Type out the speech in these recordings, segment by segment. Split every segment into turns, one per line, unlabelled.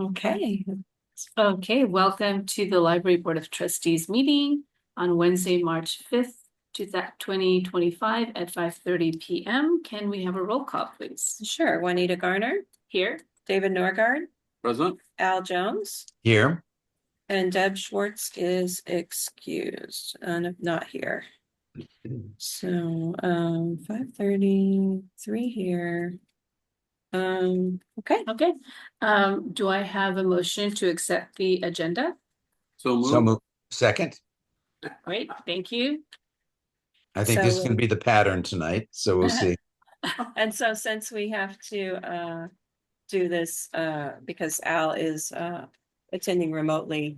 Okay, okay, welcome to the Library Board of Trustees meeting on Wednesday, March fifth, two thousand twenty twenty-five at five thirty P M. Can we have a roll call, please?
Sure, Juanita Garner,
Here,
David Norgard,
Present?
Al Jones,
Here,
and Deb Schwartz is excused and not here. So, um, five thirty, three here. Um, okay,
okay, um, do I have a motion to accept the agenda?
So
so
moved.
move, second.
Great, thank you.
I think this
So-
is gonna be the pattern tonight, so we'll see.
and so since we have to, uh, do this, uh, because Al is, uh, attending remotely,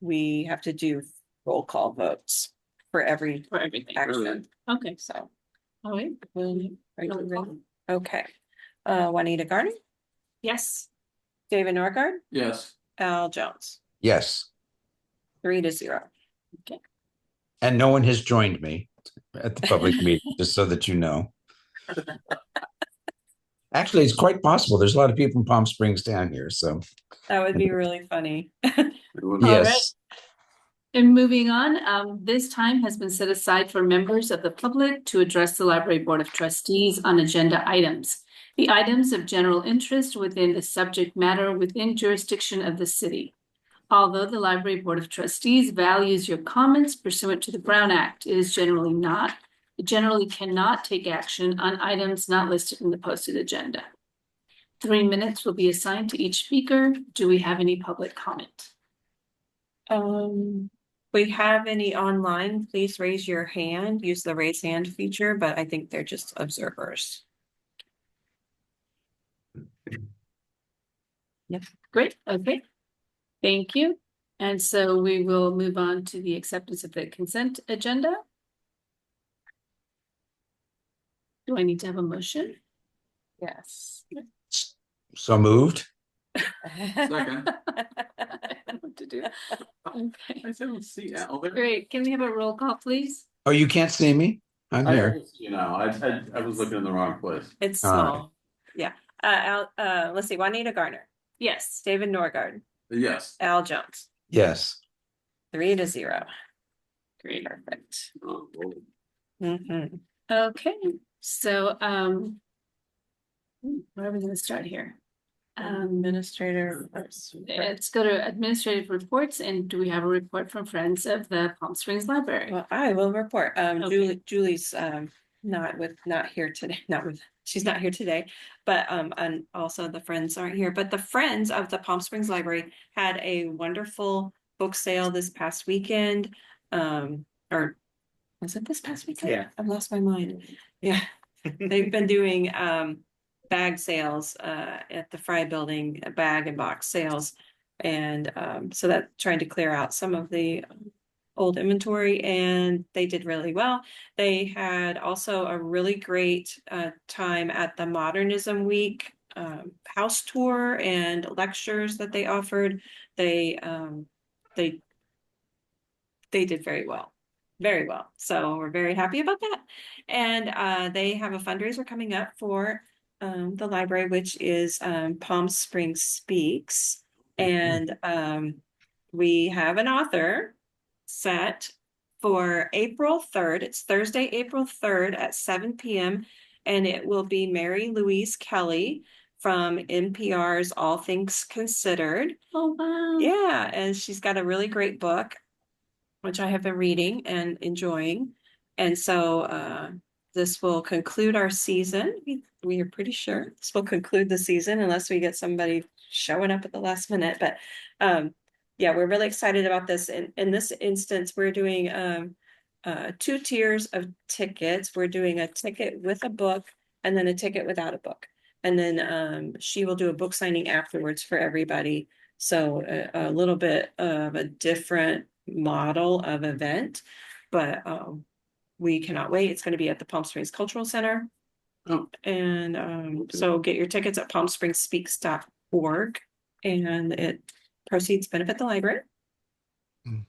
we have to do roll call votes for every
For everything,
action,
okay,
so.
all right,
um, are you
Roll
ready?
call.
Okay, uh, Juanita Garner,
yes,
David Norgard,
Yes,
Al Jones,
Yes,
three to zero.
and no one has joined me at the public meeting, just so that you know. Actually, it's quite possible. There's a lot of people from Palm Springs down here, so
That would be really funny.
it was-
right.
yes.
And moving on, um, this time has been set aside for members of the public to address the Library Board of Trustees on agenda items. The items of general interest within the subject matter within jurisdiction of the city. Although the Library Board of Trustees values your comments pursuant to the Brown Act, it is generally not, it generally cannot take action on items not listed in the posted agenda. Three minutes will be assigned to each speaker. Do we have any public comment?
Um, we have any online, please raise your hand, use the raise hand feature, but I think they're just observers.
Great, okay. Thank you. And so we will move on to the acceptance of the consent agenda. Do I need to have a motion?
Yes.
So moved.
Second.
I don't know what to do. Okay,
I don't see Al there.
great. Can we have a roll call, please?
Oh, you can't see me? I'm
I
here.
don't see You know, I, I, I was looking in the wrong place.
It's
All right.
small, yeah. Uh, Al, uh, let's see, Juanita Garner,
Yes.
David Norgard,
Yes.
Al Jones,
Yes,
three to zero.
Great.
Perfect.
Oh, well,
Mhm.
Okay, so, um, hmm, where are we gonna start here? Um,
Administrator. reports.
let's go to administrative reports and do we have a report from Friends of the Palm Springs Library?
Well, I will report. Um,
Okay.
Julie, Julie's, um, not with, not here today, not with, she's not here today. But, um, and also the friends aren't here, but the friends of the Palm Springs Library had a wonderful book sale this past weekend. Um, or was it this past weekend?
Yeah.
I've lost my mind. Yeah, they've been doing, um, bag sales, uh, at the Fry Building, uh, bag and box sales. And, um, so that, trying to clear out some of the old inventory and they did really well. They had also a really great uh, time at the Modernism Week um, house tour and lectures that they offered. They um, they they did very well, very well. So we're very happy about that. And uh, they have a fundraiser coming up for um, the library, which is um, Palm Springs Speaks, and um, we have an author set for April third. It's Thursday, April third at seven PM. And it will be Mary Louise Kelly from NPR's All Things Considered.
Oh, wow.
Yeah, and she's got a really great book, which I have been reading and enjoying. And so uh, this will conclude our season. We- We are pretty sure this will conclude the season unless we get somebody showing up at the last minute. But um, yeah, we're really excited about this. In in this instance, we're doing um, uh, two tiers of tickets. We're doing a ticket with a book and then a ticket without a book. And then um, she will do a book signing afterwards for everybody. So uh, a, a little bit of a different model of event, but um, we cannot wait. It's going to be at the Palm Springs Cultural Center.
Oh.
And um, so get your tickets at palmspringspeaks.org and it proceeds benefit the library.
Hmm.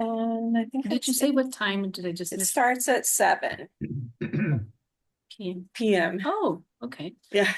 And I think
Did you
that's
say
it.
what time did I just
it
miss?
starts at seven
PM?
PM?
Oh, okay.
Yeah.